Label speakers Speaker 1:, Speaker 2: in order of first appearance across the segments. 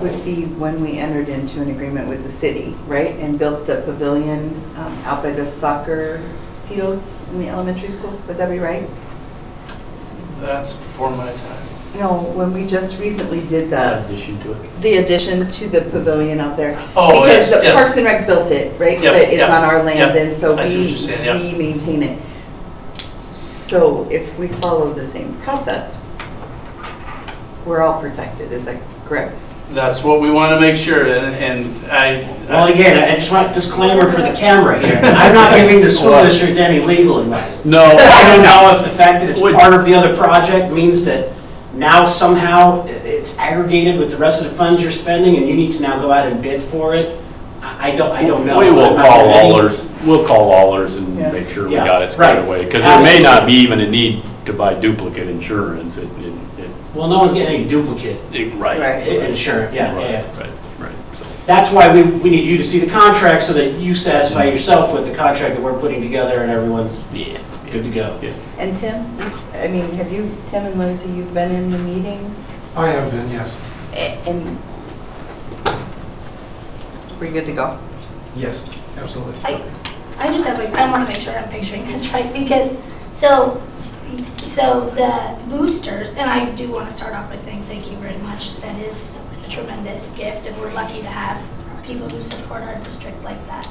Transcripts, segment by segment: Speaker 1: would be when we entered into an agreement with the city, right? And built the pavilion um, out by the soccer fields in the elementary school, would that be right?
Speaker 2: That's before my time.
Speaker 1: No, when we just recently did the,
Speaker 3: addition to it.
Speaker 1: the addition to the pavilion out there.
Speaker 2: Oh, yes,
Speaker 1: Because the
Speaker 2: yes.
Speaker 1: Parks and Rec built it, right?
Speaker 2: Yep,
Speaker 1: But it's
Speaker 2: yep,
Speaker 1: on our land,
Speaker 2: yep.
Speaker 1: and so
Speaker 2: I see what
Speaker 1: we,
Speaker 2: you're saying, yeah.
Speaker 1: we maintain it. So if we follow the same process, we're all protected, is that correct?
Speaker 2: That's what we want to make sure, and and I.
Speaker 3: Well, again, I just want disclaimer for the camera here. I'm not giving the school district any legal advice.
Speaker 2: No,
Speaker 3: I don't know if the fact that it's
Speaker 2: Would-
Speaker 3: part of the other project means that now somehow i- it's aggregated with the rest of the funds you're spending and you need to now go out and bid for it. I I don't, I don't know.
Speaker 4: We
Speaker 3: I'm
Speaker 4: will
Speaker 3: not
Speaker 4: call
Speaker 3: giving-
Speaker 4: Allers, we'll call Allers and
Speaker 1: Yeah.
Speaker 4: make sure we
Speaker 3: Yeah,
Speaker 4: got it squared
Speaker 3: right.
Speaker 4: away. Because there may not be even a need to buy duplicate insurance. It, it, it-
Speaker 3: Well, no one's getting any duplicate
Speaker 4: it, right.
Speaker 1: Right.
Speaker 3: i- insurance, yeah, yeah,
Speaker 4: Right,
Speaker 3: yeah.
Speaker 4: right, right. So,
Speaker 3: That's why we, we need you to see the contract so that you satisfy yourself with the contract that we're putting together and everyone's
Speaker 4: Yeah.
Speaker 3: good to go.
Speaker 1: And Tim, you've- I mean, have you, Tim and Lindsay, you've been in the meetings
Speaker 5: I have been, yes.
Speaker 1: a- and we're good to go?
Speaker 5: Yes, absolutely.
Speaker 6: I, I just have like, I want to make sure I'm picturing this right because, so, so the boosters, and I do want to start off by saying thank you very much. That is a tremendous gift and we're lucky to have people who support our district like that.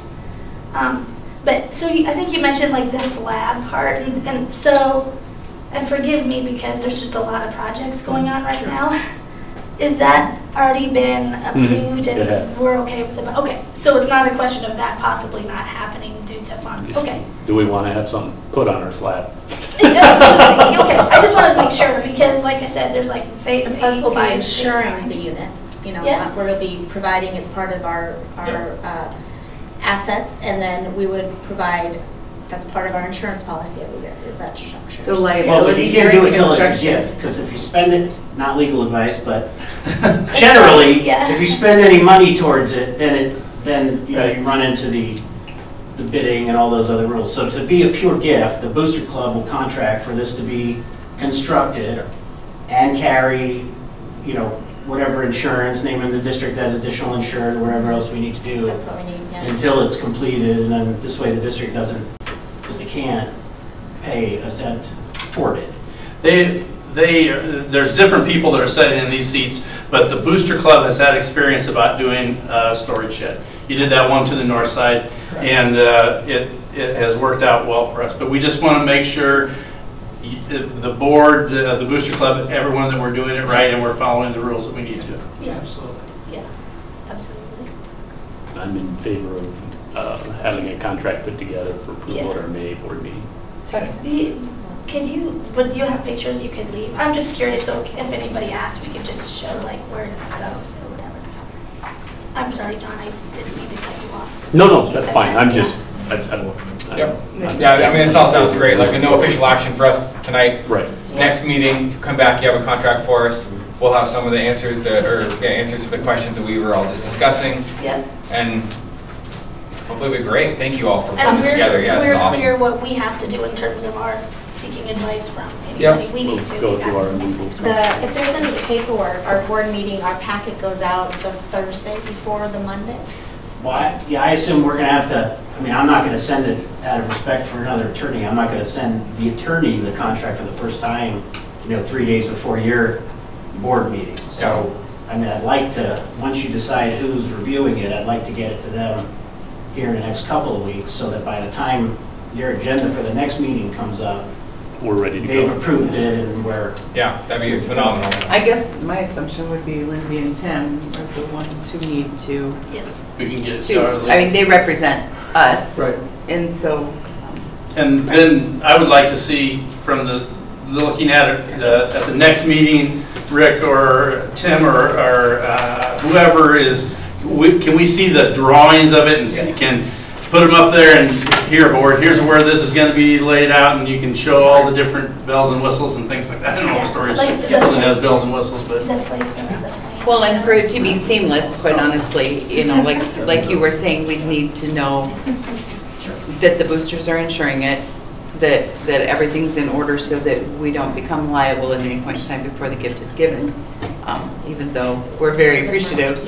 Speaker 6: Um, but, so you- I think you mentioned like this lab part and, and so, and forgive me because there's just a lot of projects going on right now. Is that already been approved
Speaker 4: Mm-hmm. it has.
Speaker 6: and we're okay with it, okay, so it's not a question of that possibly not happening due to funds,
Speaker 4: Just-
Speaker 6: okay.
Speaker 4: Do we want to have something put on our slab?
Speaker 6: Absolutely, okay, I just wanted to make sure, because like I said, there's like phase
Speaker 7: And
Speaker 6: eight.
Speaker 7: plus we'll be
Speaker 6: phase six,
Speaker 7: insuring
Speaker 6: nine.
Speaker 7: the unit, you know,
Speaker 6: Yeah.
Speaker 7: what we'll be providing as part of our, our uh, assets, and then we would provide, that's part of our insurance policy every year, is that structure.
Speaker 1: So
Speaker 3: Well, but you
Speaker 1: liability
Speaker 3: can't do
Speaker 1: during
Speaker 3: it till it's a
Speaker 1: construction?
Speaker 3: gift, because if you spend it, not legal advice, but generally,
Speaker 6: Yeah.
Speaker 3: if you spend any money towards it, then it, then, you know, you run into the, the bidding and all those other rules. So to be a pure gift, the Booster Club will contract for this to be constructed and carry, you know, whatever insurance, naming the district as additional insured, whatever else we need to do
Speaker 7: That's what we need, yeah.
Speaker 3: until it's completed, and then this way the district doesn't, because they can't pay a cent toward it.
Speaker 2: they, they, there's different people that are sitting in these seats, but the Booster Club has had experience about doing a storage shed. You did that one to the north side, and uh, it, it has worked out well for us. But we just want to make sure y- the the board, uh, the the Booster Club, everyone that we're doing it right and we're following the rules that we need to.
Speaker 6: Yeah,
Speaker 5: Absolutely.
Speaker 6: yeah, absolutely.
Speaker 4: I'm in favor of uh, having a contract put together for approval at our May board meeting.
Speaker 1: Second.
Speaker 6: The- Could you, would you have pictures you could leave? I'm just curious, so if anybody asks, we could just show like where it goes or whatever. I'm sorry, John, I didn't mean to cut you off.
Speaker 4: No, no, that's fine. I'm just, I, I.
Speaker 8: Yep. Yeah, I mean, this all sounds great, like, no official action for us tonight.
Speaker 4: Right.
Speaker 8: Next meeting, come back, you have a contract for us. We'll have some of the answers that, or yeah, answers to the questions that we were all just discussing,
Speaker 6: Yep.
Speaker 8: and hopefully it'll be great. Thank you all for putting
Speaker 6: And
Speaker 8: this
Speaker 6: we're,
Speaker 8: together, yeah, this is
Speaker 6: we're
Speaker 8: awesome.
Speaker 6: clear what we have to do in terms of our seeking advice from
Speaker 8: Yep.
Speaker 6: anybody we
Speaker 4: We'll
Speaker 6: need to.
Speaker 4: go through our
Speaker 6: Yeah.
Speaker 4: legal.
Speaker 7: The, if there's any paperwork, our board meeting, our packet goes out the Thursday before the Monday?
Speaker 3: Well, I- yeah, I assume we're gonna have to, I mean, I'm not gonna send it out of respect for another attorney. I'm not gonna send the attorney the contract for the first time, you know, three days before your board meeting. So, I mean, I'd like to, once you decide who's reviewing it, I'd like to get it to them here in the next couple of weeks, so that by the time your agenda for the next meeting comes up,
Speaker 4: We're ready to
Speaker 3: they've
Speaker 4: go.
Speaker 3: approved it and we're
Speaker 8: Yeah, that'd be phenomenal.
Speaker 1: I guess my assumption would be Lindsay and Tim are the ones who need to,
Speaker 6: Yes.
Speaker 2: We can get it started.
Speaker 1: to, I mean, they represent us.
Speaker 5: Right.
Speaker 1: And so
Speaker 2: And then I would like to see from the, looking at it, the- at the next meeting, Rick or Tim or or, uh, whoever is, we- can we see the drawings of it and see- can put them up there and here, board, here's where this is going to be laid out and you can show all the different bells and whistles and things like that. I don't know if storage
Speaker 6: Like the-
Speaker 2: building has bells and whistles, but.
Speaker 6: The placement of the plan.
Speaker 1: Well, and for it to be seamless, quite honestly, you know, like, like you were saying, we'd need to know that the boosters are insuring it, that, that everything's in order so that we don't become liable at any point in time before the gift is given, um, even though we're very appreciative